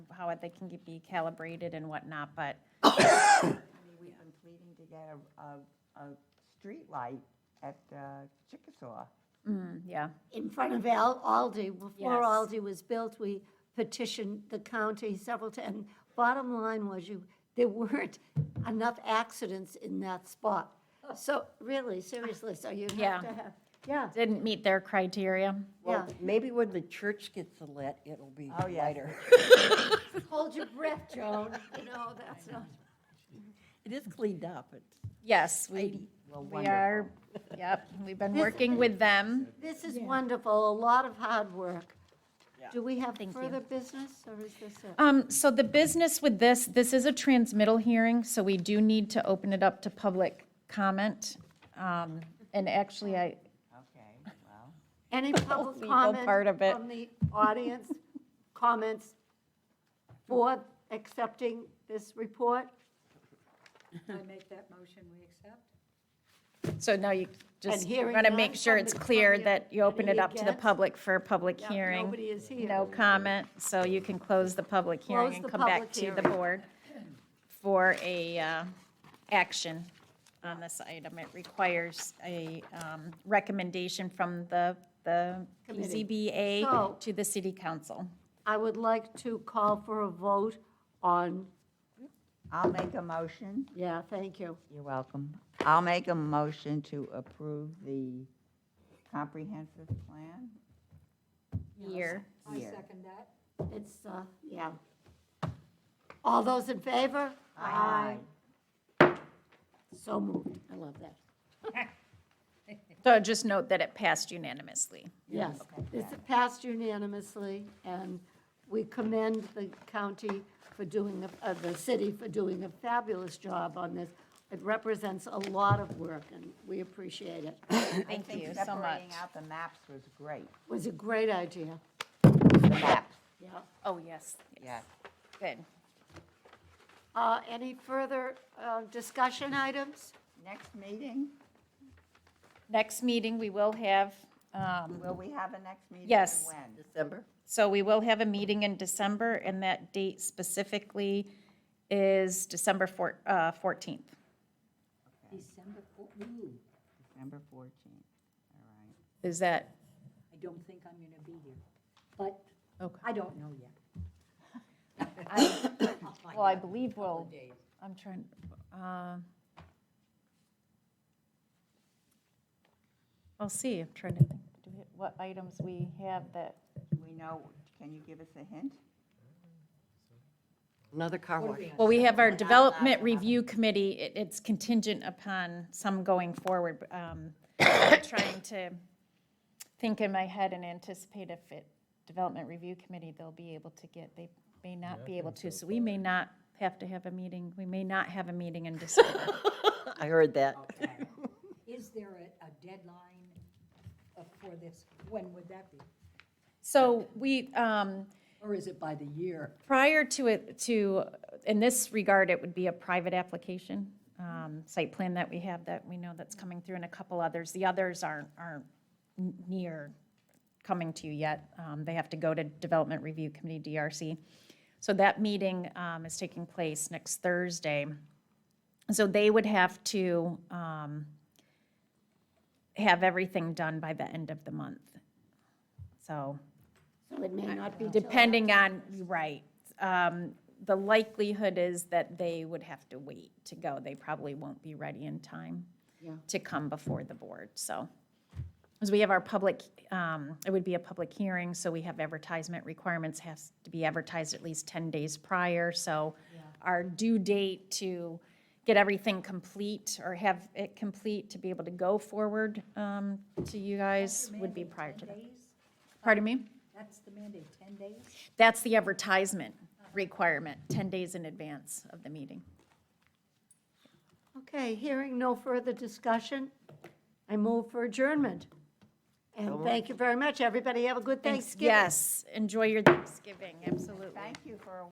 how it- they can get- be calibrated and whatnot, but I mean, we- I'm pleading to get a, a, a street light at uh, Chickasaw. mm, yeah, in front of Al Aldi, before Yes. Aldi was built, we petitioned the county several times. And Bottom line was you, there weren't enough accidents in that spot. So really, seriously, so you Yeah. have to have, yeah, didn't meet their criteria. yeah. Well, maybe when the church gets the lit, it'll be Oh, yes. lighter. Hold your breath, Joan, you know, that's not. It is cleaned up. It's Yes, we, tidy. Well, we wonderful. are, yep, we've been working with them. This is wonderful, a lot of hard work. Do we have Thank you. further business, or is this it? Um, so the business with this, this is a transmittal hearing, so we do need to open it up to public comment. Um, and actually, I, Okay, well, Any public legal comment part of it. from the audience? Comments for accepting this report? I make that motion, we accept? so now you just hearing want to make none sure from it's the clear public. that you open it Any up to the against? public for a public Yeah, hearing. Nobody is here. No comment, so you can close the public hearing Close and the come back public to the hearing. board for a, uh, action on this item. It requires a, um, recommendation from the, the E Committee. So- ZBA to the city council. I would like to call for a vote on, I'll make a motion. yeah, thank you. You're welcome. I'll make a motion to approve the comprehensive plan. year. I Here. second that. It's, uh, yeah. All those in favor? So moved. I love that. So just note that it passed unanimously. Yes, this passed unanimously, and we commend the county for doing, a- uh, the city for doing a fabulous job on this. It represents a lot of work, and we appreciate it. It Thank I think you so much. Separating out the maps was great. was a great idea. The maps, Yeah. Oh, yes. yes. Good. Uh, Any further uh, discussion items? Next meeting, Next meeting, we will have, um, will we have a next meeting? and Yes. When? December? so we will have a meeting in December, and that date specifically is December four- uh, 14th. December 4th, ooh, December 14th, all right. Is that, I don't think I'm going to be here, but Okay. I don't know yet. I'll find well, I out. believe Couple we'll, of days. I'm trying, uh, I'll see, I'm trying to think, do we- what items we have that, Do we know, can you give us a hint? Another car wash. well, we have our Development Review Committee, it, it's contingent upon some going forward. but, um, I'm Trying to think in my head and anticipate if it, Development Review Committee, they'll be able to get, they may not be able to, so we may not have to have a meeting, we may not have a meeting in December. I heard that. Is there a, a deadline uh, for this? When would that be? So we, um, Or is it by the year? prior to it, to, in this regard, it would be a private application, um, site plan that we have that we know that's coming through and a couple others. The others aren't, aren't n- near coming to you yet. Um, They have to go to Development Review Committee, DRC. So that meeting um, is taking place next Thursday. So they would have to um, have everything done by the end of the month. So So it may not be till Depending on, right. Um, The likelihood is that they would have to wait to go. They probably won't be ready in time Yeah. to come before the board, so. As we have our public, um, it would be a public hearing, so we have advertisement requirements, has to be advertised at least 10 days prior. So our due date to get everything complete or have it complete to be able to go forward um, to you guys would be prior to that. Pardon me? That's the mandate, 10 days? That's the advertisement requirement, 10 days in advance of the meeting. Okay, hearing no further discussion, I move for adjournment. And thank you very much, everybody. Have a good Thanks- Thanksgiving. Yes, enjoy your Thanksgiving, absolutely. Thank you for a